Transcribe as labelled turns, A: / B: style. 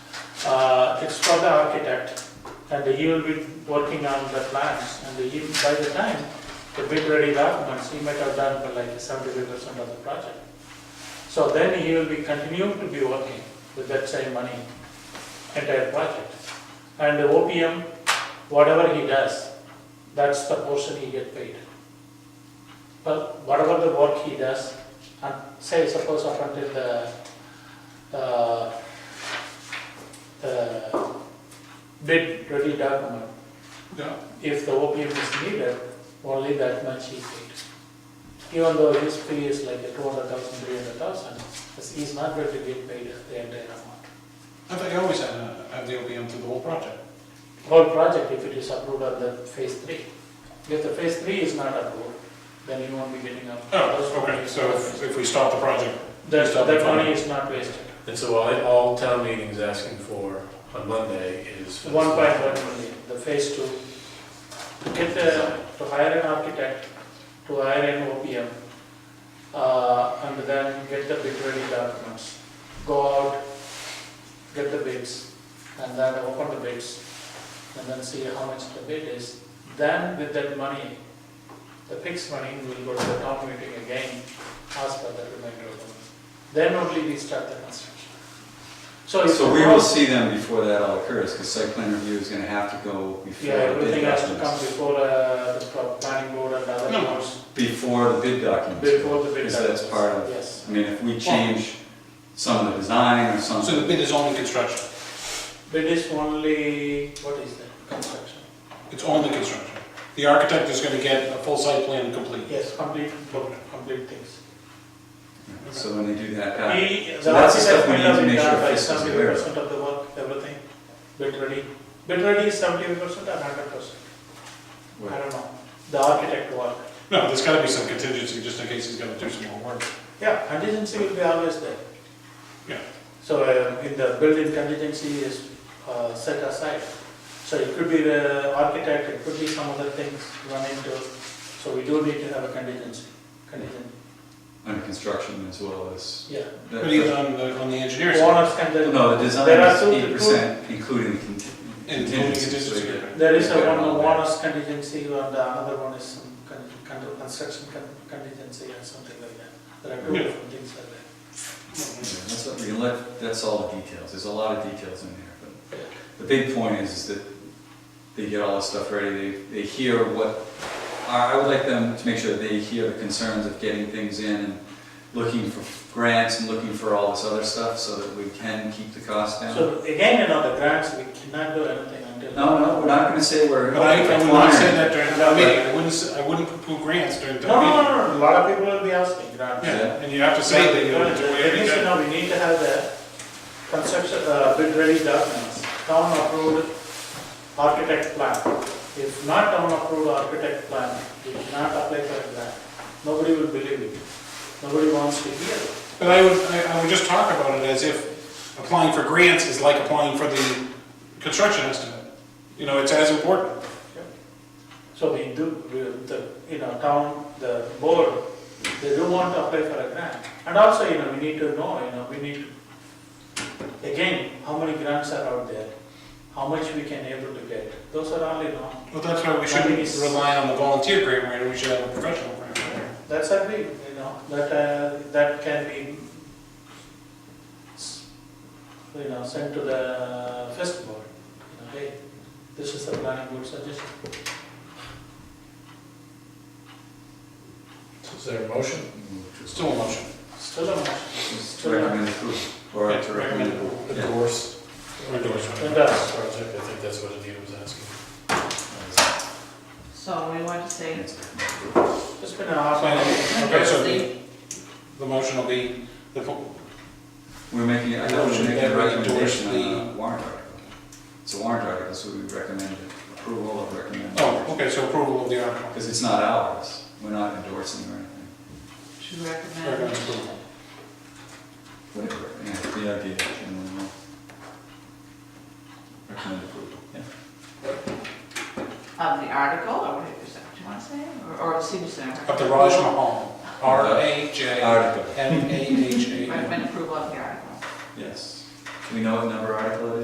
A: Uh, It's for the architect, and he will be working on the plans, and he, by the time, the bid ready documents, he might have done for like seventy-five percent of the project. So then he will be continuing to be working with that same money, entire project. And the OPM, whatever he does, that's the portion he get paid. But whatever the work he does, and say suppose up until the, uh, the bid ready document,
B: Yeah,
A: if the OPM is needed, only that much he paid. Even though his fee is like two hundred thousand, three hundred thousand, he's not going to get paid the entire amount.
B: I thought you always had, uh, had the OPM through the whole project.
A: Whole project, if it is approved on the phase three. If the phase three is not approved, then you won't be getting up.
B: Oh, okay, so if, if we stop the project,
A: That,
B: Stop
A: that
B: the money.
A: money is not wasted.
C: And so all, all town meetings asking for on Monday is. for this
A: One point one million, the phase two. To get the, to hire an architect, to hire an OPM, uh, and then get the bid ready documents. Go out, get the bids, and then open the bids, and then see how much the bid is. Then with that money, the fixed money, we'll go to the town meeting again, ask for the remainder of the money. Then only we start the construction. So it's.
D: So we will see them before that all occurs, because site plan review is gonna have to go
A: Yeah,
D: before the bid
A: everything has to come
D: documents.
A: before uh, the pro- planning board and other
B: No.
A: boards,
D: Before the bid documents.
A: before the bid.
D: Because that's
A: happens.
D: part of-
A: Yes.
D: I mean, if we change some of the design or
B: so the
D: something,
B: bid is only construction,
A: Bid is only, what is that, construction?
B: it's only construction. The architect is gonna get a full site plan complete.
A: Yes, complete, complete things.
D: so when they do that, uh,
A: He,
D: So
A: the
D: that's the
A: architect
D: stuff we
A: will
D: need to
A: have
D: make
A: been
D: sure
A: done by
D: this is
A: seventy
D: aware of.
A: percent of the work, everything, bid ready. Bid ready is seventy percent or hundred percent, I
D: what-
A: don't know, the architect work.
B: No, there's gotta be some contingency, just in case he's gonna do some more work.
A: Yeah, contingency will be always there.
B: Yeah.
A: So uh, in the building contingency is uh, set aside. So it could be the architect, it could be some other things run into, so we do need to have a contingency. Contingent,
D: under construction as well as.
A: yeah.
D: that-
B: But even on the, on the engineer's. side,
A: Owners can then,
D: No, the design
A: There are
D: is
A: two-
D: eight percent, including the conti-
B: Including
D: contingency. so
B: contingency.
D: you-
A: there is a one, owners contingency and the another one is some con- con- construction con- contingency or something like that. There are two
B: Yeah.
A: different things like that.
D: Yeah, That's, what we can let, that's all the details, there's a lot of details in there, but.
A: Yeah.
D: The big point is, is that they get all this stuff ready, they, they hear what, I I would like them to make sure they hear the concerns of getting things in and looking for grants and looking for all this other stuff so that we can keep the cost down.
A: So again, you know, the grants, we cannot do anything until.
D: No, no, we're not gonna say we're.
B: But I, I would not say that during
A: No,
B: the meeting, I wouldn't, s- I wouldn't poo grants during the
A: No, no,
B: meeting.
A: no, no, a lot of people will be asking grants.
B: Yeah, and you have to say that you're gonna do
A: At least, you
B: everything.
A: know, we need to have the conception, uh, bid ready documents, town approved architect plan. If not town approved architect plan, we cannot apply for a grant. Nobody will believe it. Nobody wants to hear it.
B: But I would, I I would just talk about it as if applying for grants is like applying for the construction estimate. You know, it's as important.
A: So we do, we- the, you know, town, the board, they do want to apply for a grant. And also, you know, we need to know, you know, we need, to- again, how many grants are out there? How much we can able to get? Those are all, you know,
B: Well, that's why we shouldn't rely on the volunteer grant writer, we should have a professional grant writer.
A: that's a big, you know, that, uh, that can be, s- you know, sent to the first board. You know, Hey, this is the planning board suggestion.
C: Is there a motion? Mm-hmm.
B: Still a motion.
A: Still a motion.
D: Just recommend approval, or to recommend approval. Yeah.
C: Endorse.
B: Or endorse.
A: Endorse.
C: Project, I think that's what Anita was asking.
E: So we want to say,
A: It's been a hard one.
B: Okay, so the, the motion will be, the, po-
D: We're making, I thought we were
B: Motion
D: making a
B: that we endorse
D: recommendation on
B: the-
D: a warrant article. It's a warrant article, so we recommend approval of recommend.
B: oh, okay, so approval of the article.
D: Because it's not ours, we're not endorsing or anything.
E: to
B: Recommend
E: recommend
B: approval.
D: Whatever, yeah, the idea, generally. Recommend approval, yeah.
E: of um, the article, or what is that, do you want to say, or, or the senior center?
B: Of the Raj Mahal, R A J
D: Article,
B: M A H A L.
E: Recommend approval of the article.
D: yes. Do we know what number article it is?